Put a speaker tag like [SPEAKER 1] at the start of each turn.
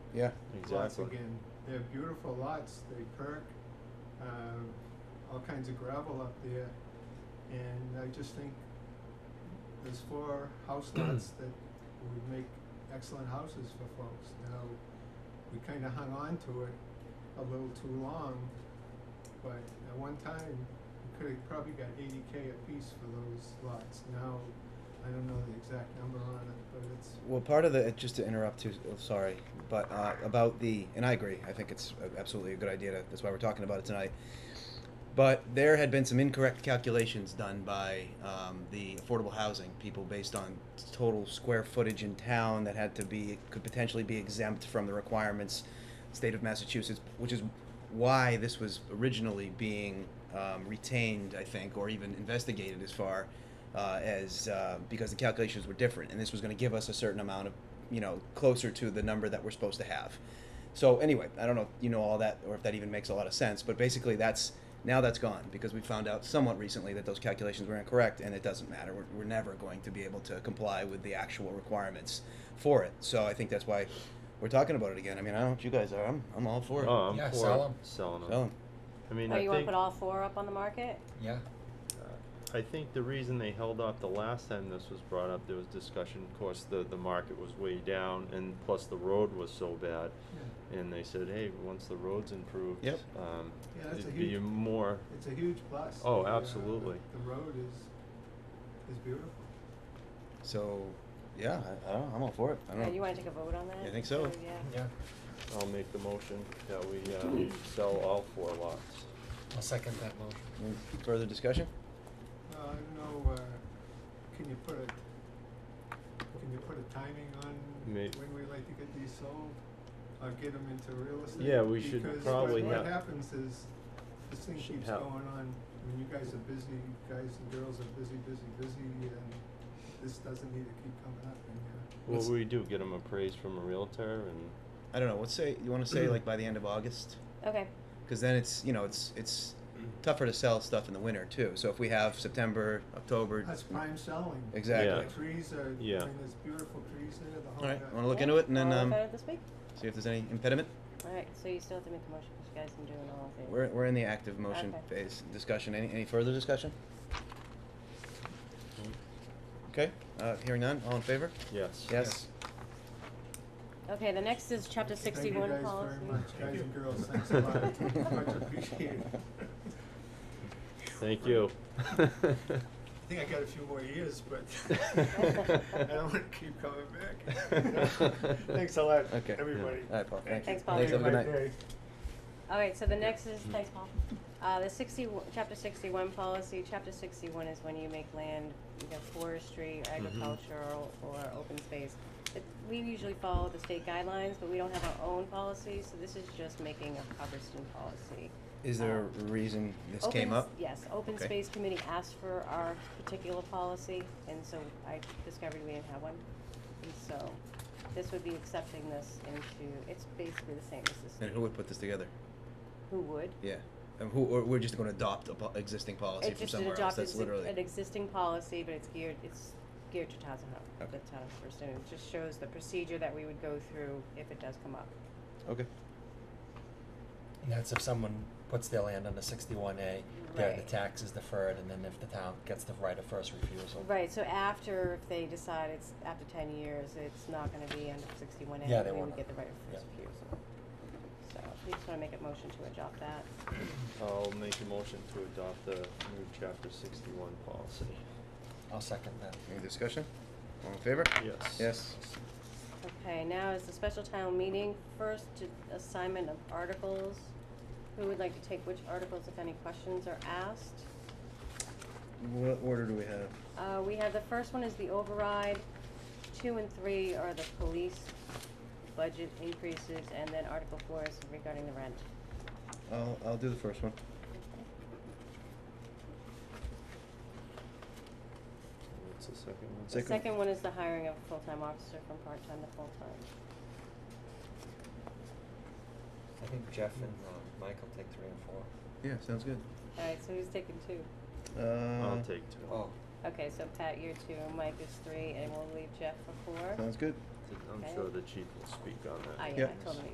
[SPEAKER 1] Yeah.
[SPEAKER 2] Lots
[SPEAKER 3] exactly.
[SPEAKER 2] again, they're beautiful lots, they perk, um, all kinds of gravel up there. And I just think there's four house lots that would make excellent houses for folks. Now, we kinda hung on to it a little too long, but at one time, we could've probably got eighty K apiece for those lots. Now, I don't know the exact number on it, but it's
[SPEAKER 1] Well, part of the uh, just to interrupt too. oh, Sorry, but uh, about the and I agree. I think it's a- absolutely a good idea. To, that's why we're talking about it tonight. But there had been some incorrect calculations done by um, the affordable housing people based on total square footage in town that had to be could potentially be exempt from the requirements, state of Massachusetts, which is why this was originally being um, retained, I think, or even investigated as far uh, as uh, because the calculations were different, and this was going to give us a certain amount of, you know, closer to the number that we're supposed to have. So anyway, I don't know if you know all that or if that even makes a lot of sense, but basically that's now that's gone because we found out somewhat recently that those calculations were incorrect, and it doesn't matter. We're, we're never going to be able to comply with the actual requirements for it. So I think that's why we're talking about it again. I mean, I don't know what you guys are. I'm, I'm all for it.
[SPEAKER 3] Oh, I'm
[SPEAKER 4] Yeah,
[SPEAKER 3] for
[SPEAKER 4] sell 'em.
[SPEAKER 3] selling 'em.
[SPEAKER 1] Sell 'em.
[SPEAKER 3] I mean,
[SPEAKER 5] Oh,
[SPEAKER 3] I
[SPEAKER 5] you wanna
[SPEAKER 3] think
[SPEAKER 5] put all four up on the market?
[SPEAKER 4] Yeah,
[SPEAKER 3] uh, I think the reason they held off the last time this was brought up, there was discussion. Of course, the the market was way down, and plus the road was so bad. And they said, hey, once the road's improved,
[SPEAKER 1] Yep.
[SPEAKER 3] um,
[SPEAKER 2] Yeah, that's a
[SPEAKER 3] it'd be
[SPEAKER 2] huge-
[SPEAKER 3] more.
[SPEAKER 2] It's a huge plus.
[SPEAKER 3] Oh,
[SPEAKER 2] The, uh,
[SPEAKER 3] absolutely.
[SPEAKER 2] The the road is, is beautiful.
[SPEAKER 1] So, yeah, I, I don't know. I'm all for it. I don't
[SPEAKER 5] Uh,
[SPEAKER 1] know.
[SPEAKER 5] You wanna take a vote on that?
[SPEAKER 1] I think so.
[SPEAKER 5] Oh, Yeah.
[SPEAKER 4] yeah.
[SPEAKER 3] I'll make the motion that we uh, sell all four lots.
[SPEAKER 4] I'll second that motion.
[SPEAKER 1] Any Further discussion?
[SPEAKER 2] Uh, I don't know, uh, can you put a, can you put a timing on
[SPEAKER 3] May-
[SPEAKER 2] when we like to get these sold? Or get them into real estate?
[SPEAKER 3] Yeah, we should
[SPEAKER 2] Because what-
[SPEAKER 3] probably
[SPEAKER 2] what
[SPEAKER 3] have-
[SPEAKER 2] happens is, this thing
[SPEAKER 3] Should
[SPEAKER 2] keeps
[SPEAKER 3] have-
[SPEAKER 2] going on, when you guys are busy, you guys and girls are busy, busy, busy, and this doesn't need to keep coming up, and, uh,
[SPEAKER 3] What
[SPEAKER 1] Let's-
[SPEAKER 3] would we do? Get them appraised from a realtor and.
[SPEAKER 1] I don't know. Let's say you want to say like by the end of August,
[SPEAKER 5] Okay,
[SPEAKER 1] because then it's you know it's it's tougher to sell stuff in the winter too. So if we have September, October,
[SPEAKER 2] that's prime selling.
[SPEAKER 1] exactly.
[SPEAKER 3] Yeah.
[SPEAKER 2] The trees are, I mean,
[SPEAKER 3] Yeah.
[SPEAKER 2] there's beautiful trees there, the whole.
[SPEAKER 1] All right,
[SPEAKER 2] nut.
[SPEAKER 1] want to look
[SPEAKER 5] Yeah,
[SPEAKER 1] into it and then
[SPEAKER 5] I'll
[SPEAKER 1] um,
[SPEAKER 5] look at it this week.
[SPEAKER 1] see if there's any impediment.
[SPEAKER 5] Alright, so you still have to make the motion, 'cause you guys can do it all in favor.
[SPEAKER 1] We're, we're in the active motion
[SPEAKER 5] Okay.
[SPEAKER 1] phase discussion. Any any further discussion? Okay, uh, hearing none. All in favor?
[SPEAKER 3] Yes.
[SPEAKER 1] Yes.
[SPEAKER 5] Okay, the next is chapter sixty-one policy.
[SPEAKER 2] Thank you guys
[SPEAKER 3] Thank
[SPEAKER 2] very much,
[SPEAKER 3] you.
[SPEAKER 2] guys and girls, thanks a lot, much appreciated.
[SPEAKER 3] Thank you.
[SPEAKER 2] I think I got a few more years, but I don't wanna
[SPEAKER 3] Thank
[SPEAKER 2] keep coming back. Thanks a lot,
[SPEAKER 1] Okay.
[SPEAKER 2] everybody.
[SPEAKER 1] All right, Paul. Thank
[SPEAKER 5] Thanks,
[SPEAKER 1] you.
[SPEAKER 5] Paul.
[SPEAKER 1] Thanks. Have a good
[SPEAKER 2] Have a
[SPEAKER 1] night.
[SPEAKER 2] great day.
[SPEAKER 5] Alright, so the next is,
[SPEAKER 1] Mm-hmm.
[SPEAKER 5] thanks Paul. Uh, the sixty, chapter sixty-one policy, chapter sixty-one is when you make land, either forestry,
[SPEAKER 1] Mm-hmm.
[SPEAKER 5] agricultural, or open space. It- We usually follow the state guidelines, but we don't have our own policy, so this is just making a Hubbardston policy.
[SPEAKER 1] Is there a reason this
[SPEAKER 5] Open
[SPEAKER 1] came
[SPEAKER 5] s-
[SPEAKER 1] up?
[SPEAKER 5] Yes, Open
[SPEAKER 1] Okay.
[SPEAKER 5] Space Committee asked for our particular policy, and so I discovered we didn't have one. And so, this would be accepting this into, it's basically the same as
[SPEAKER 1] And
[SPEAKER 5] this,
[SPEAKER 1] who would put this together?
[SPEAKER 5] who would?
[SPEAKER 1] Yeah. And who, or we're just gonna adopt a po- existing policy
[SPEAKER 5] It
[SPEAKER 1] from
[SPEAKER 5] just an
[SPEAKER 1] somewhere else,
[SPEAKER 5] adopted
[SPEAKER 1] that's literally.
[SPEAKER 5] an existing policy, but it's geared, it's geared to Townsend Hub,
[SPEAKER 1] Okay.
[SPEAKER 5] the town of Hubbardston, and it just shows the procedure that we would go through if it does come up.
[SPEAKER 1] Okay.
[SPEAKER 4] And that's if someone puts their land under sixty-one A, then the
[SPEAKER 5] Right.
[SPEAKER 4] tax is deferred, and then if the town gets the right of first refusal.
[SPEAKER 5] Right, so after, if they decide it's, after ten years, it's not gonna be under sixty-one A,
[SPEAKER 4] Yeah, they
[SPEAKER 5] we would
[SPEAKER 4] won't.
[SPEAKER 5] get the right of first
[SPEAKER 4] Yeah.
[SPEAKER 5] refusal. So, we just wanna make a motion to adopt that.
[SPEAKER 3] I'll make a motion to adopt the new chapter sixty-one policy.
[SPEAKER 4] I'll second that.
[SPEAKER 1] Any discussion? All in favor?
[SPEAKER 3] Yes.
[SPEAKER 1] Yes.
[SPEAKER 5] Okay, now is the special town meeting, first to- assignment of articles. Who would like to take which articles, if any questions are asked?
[SPEAKER 1] What order do we have?
[SPEAKER 5] Uh, we have, the first one is the override, two and three are the police budget increases, and then Article four is regarding the rent.
[SPEAKER 1] I'll, I'll do the first one.
[SPEAKER 3] What's the second one?
[SPEAKER 5] The
[SPEAKER 1] Second-
[SPEAKER 5] second one is the hiring of a full-time officer from part-time to full-time.
[SPEAKER 4] I think Jeff and, uh, Michael take three and four.
[SPEAKER 1] Yeah, sounds good.
[SPEAKER 5] Alright, so who's taking two?
[SPEAKER 1] Uh.
[SPEAKER 3] I'll take two.
[SPEAKER 4] Oh,
[SPEAKER 5] Okay, so Pat, you're two, Mike is three, and we'll leave Jeff for four.
[SPEAKER 1] Sounds good.
[SPEAKER 6] I'm
[SPEAKER 5] Okay.
[SPEAKER 6] sure the chief will speak on that.
[SPEAKER 5] I, I
[SPEAKER 3] Yeah.
[SPEAKER 5] told him